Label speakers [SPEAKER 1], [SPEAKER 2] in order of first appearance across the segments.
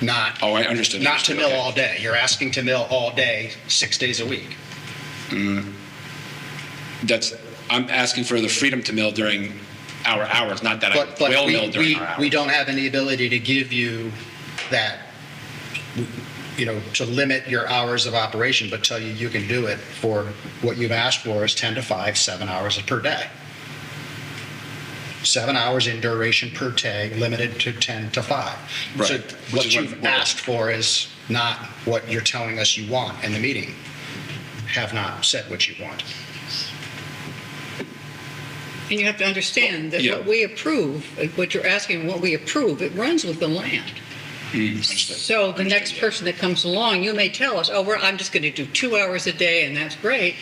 [SPEAKER 1] not.
[SPEAKER 2] Oh, I understood,
[SPEAKER 1] Not to
[SPEAKER 2] understood,
[SPEAKER 1] mill
[SPEAKER 2] okay.
[SPEAKER 1] all day. You're asking to mill all day, six days a week.
[SPEAKER 2] That's, I'm asking for the freedom to mill during our hours, not that
[SPEAKER 1] But,
[SPEAKER 2] I
[SPEAKER 1] but
[SPEAKER 2] will
[SPEAKER 1] we,
[SPEAKER 2] mill during
[SPEAKER 1] we,
[SPEAKER 2] our hours.
[SPEAKER 1] we don't have any ability to give you that, you know, to limit your hours of operation, but tell you you can do it for what you've asked for is 10 to 5, seven hours per day. Seven hours in duration per day, limited to 10 to 5. So
[SPEAKER 2] Right, which
[SPEAKER 1] what
[SPEAKER 2] is what-
[SPEAKER 1] you've asked for is not what you're telling us you want in the meeting. Have not said what you want.
[SPEAKER 3] And you have to understand that
[SPEAKER 2] Yeah.
[SPEAKER 3] what we approve, like what you're asking, what we approve, it runs with the land. So the next person that comes along, you may tell us, oh, we're, I'm just going to do two hours a day and that's great.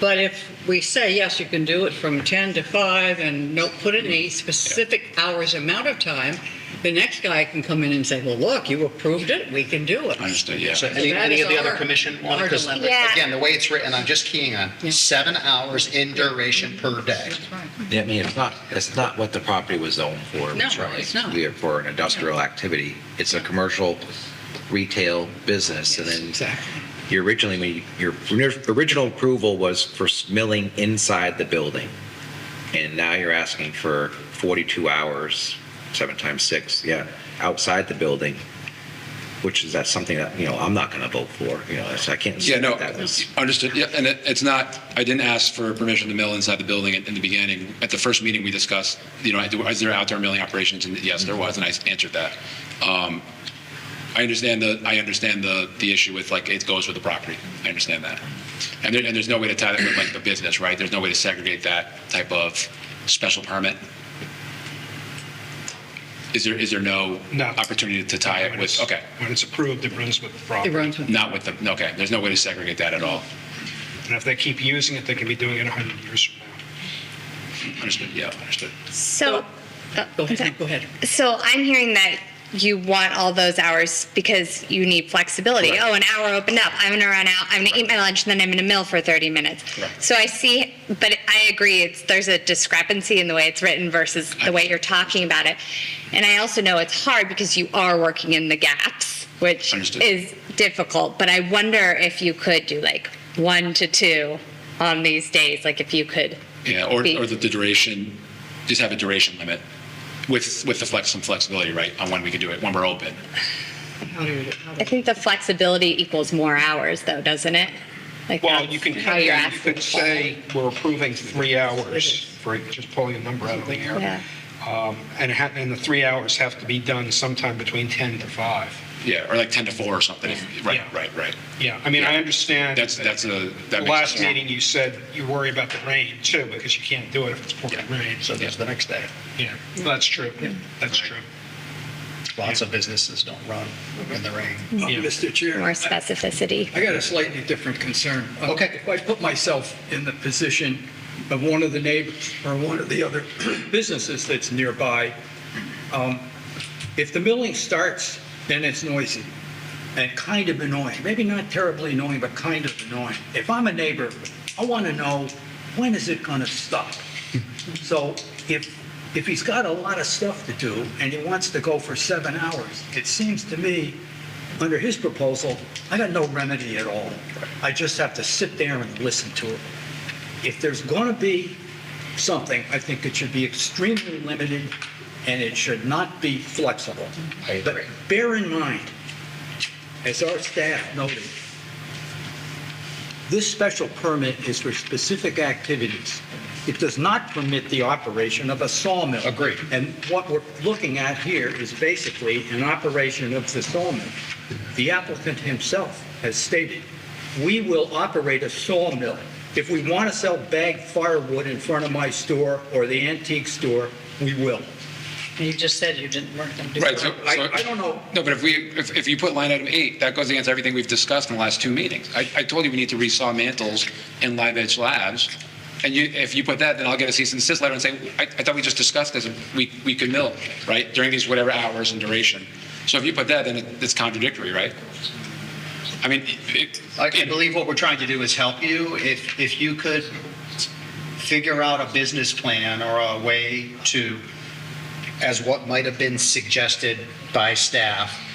[SPEAKER 3] But if we say, yes, you can do it from 10 to 5 and no, put in a specific hours amount of time, the next guy can come in and say, well, look, you approved it, we can do it.
[SPEAKER 2] I understood, yeah.
[SPEAKER 1] So any,
[SPEAKER 3] That
[SPEAKER 1] any
[SPEAKER 3] is
[SPEAKER 1] of the other
[SPEAKER 3] our-
[SPEAKER 1] commission want
[SPEAKER 3] our
[SPEAKER 1] Because
[SPEAKER 3] dilemma.
[SPEAKER 4] Yeah.
[SPEAKER 1] again, the way it's written, I'm just keying on
[SPEAKER 3] Yeah.
[SPEAKER 1] seven hours in duration per day.
[SPEAKER 3] That's right.
[SPEAKER 5] I mean, it's not, it's not what the property was zoned for.
[SPEAKER 3] No,
[SPEAKER 5] which
[SPEAKER 3] it's not.
[SPEAKER 5] we are For an industrial activity. It's a commercial retail business. And then
[SPEAKER 3] Exactly.
[SPEAKER 5] your originally, when you- your original approval was for milling inside the building. And now you're asking for 42 hours, seven times six, yeah, outside the building, which is, that's something that, you know, I'm not going to vote for, you know, that's- I can't. say
[SPEAKER 2] Yeah, no,
[SPEAKER 5] that was-
[SPEAKER 2] understood. Yeah, and it, it's not, I didn't ask for permission to mill inside the building in, in the beginning. At the first meeting, we discussed, you know, I do- is there outdoor milling operations? And yes, there was, and I answered that. Um, I understand the, I understand the, the issue with like, it goes with the property. I understand that. And there, and there's no way to tie that with like the business, right? There's no way to segregate that type of special permit. Is there, is there no
[SPEAKER 6] No.
[SPEAKER 2] opportunity to tie it
[SPEAKER 6] When
[SPEAKER 2] with,
[SPEAKER 6] it's-
[SPEAKER 2] okay,
[SPEAKER 6] When it's approved, it runs with the
[SPEAKER 3] It
[SPEAKER 6] property.
[SPEAKER 3] runs with,
[SPEAKER 2] not with the, okay, there's no way to segregate that at all.
[SPEAKER 6] And if they keep using it, they can be doing it 100 years from now.
[SPEAKER 2] Understood, yeah, understood.
[SPEAKER 4] So,
[SPEAKER 3] go ahead, go ahead.
[SPEAKER 4] so I'm hearing that you want all those hours because you need flexibility.
[SPEAKER 2] Correct.
[SPEAKER 4] Oh, an hour opened up. I'm gonna run out. I'm gonna eat my lunch, and then I'm gonna mill for 30 minutes.
[SPEAKER 2] Correct.
[SPEAKER 4] So I see, but I agree. It's there's a discrepancy in the way it's written versus the way you're talking about it. And I also know it's hard because you are working in the gaps, which
[SPEAKER 2] Understood.
[SPEAKER 4] is difficult. But I wonder if you could do like one to two on these days, like if you could.
[SPEAKER 2] Yeah, or,
[SPEAKER 4] be-
[SPEAKER 2] or the the duration, just have a duration limit with, with the flex, some flexibility, right, on when we can do it, when we're open.
[SPEAKER 3] How do you- how do
[SPEAKER 4] I think the flexibility equals more hours, though, doesn't it? Like
[SPEAKER 6] Well,
[SPEAKER 4] that's
[SPEAKER 6] you can,
[SPEAKER 4] how you're
[SPEAKER 6] you
[SPEAKER 4] asking.
[SPEAKER 6] could say, we're approving three hours for just pulling a number out of the
[SPEAKER 4] Yeah.
[SPEAKER 6] air. Um, And it ha- and the three hours have to be done sometime between 10 to 5.
[SPEAKER 2] Yeah, or like 10 to 4 or something, if- right,
[SPEAKER 6] Yeah.
[SPEAKER 2] right, right.
[SPEAKER 6] Yeah, I mean, I understand.
[SPEAKER 2] That's, that's a, that makes
[SPEAKER 6] Last
[SPEAKER 2] sense.
[SPEAKER 6] meeting, you said you worry about the rain too, because you can't do it if it's pouring rain.
[SPEAKER 1] So
[SPEAKER 6] So,
[SPEAKER 1] there's the next day.
[SPEAKER 6] yeah, that's true. That's true.
[SPEAKER 1] Lots of businesses don't run in the rain.
[SPEAKER 3] Mm-hmm.
[SPEAKER 6] Yeah.
[SPEAKER 7] Mr. Chair.
[SPEAKER 4] More
[SPEAKER 7] I-
[SPEAKER 4] specificity.
[SPEAKER 7] I got a slightly different concern. Uh,
[SPEAKER 1] Okay.
[SPEAKER 7] If I put myself in the position of one of the neighbors or one of the other businesses that's nearby, um, if the milling starts, then it's noisy and kind of annoying. Maybe not terribly annoying, but kind of annoying. If I'm a neighbor, I want to know, when is it going to stop? So if, if he's got a lot of stuff to do and he wants to go for seven hours, it seems to me, under his proposal, I got no remedy at all. I just have to sit there and listen to it. If there's going to be something, I think it should be extremely limited and it should not be flexible.
[SPEAKER 1] I agree.
[SPEAKER 7] But bear in mind, as our staff noted, this special permit is for specific activities. It does not permit the operation of a sawmill.
[SPEAKER 1] Agreed.
[SPEAKER 7] And what we're looking at here is basically an operation of the sawmill. The applicant himself has stated, "We will operate a sawmill. If we want to sell bagged firewood in front of my store or the antique store, we will."
[SPEAKER 3] You just said you didn't work them.
[SPEAKER 2] Right, so,
[SPEAKER 7] I
[SPEAKER 2] so-
[SPEAKER 7] I don't know.
[SPEAKER 2] no, but if we, if, if you put line item eight, that goes against everything we've discussed in the last two meetings. I, I told you we need to resaw mantles in Live Edge Labs, and you, if you put that, then I'll get a cease and desist letter and say, I, I thought we just discussed this, we, we could mill, right, during these whatever hours and duration. So if you put that, then it- it's contradictory, right? I mean, it.
[SPEAKER 1] I I believe what we're trying to do is help you. If, if you could figure out a business plan or a way to, as what might have been suggested by staff,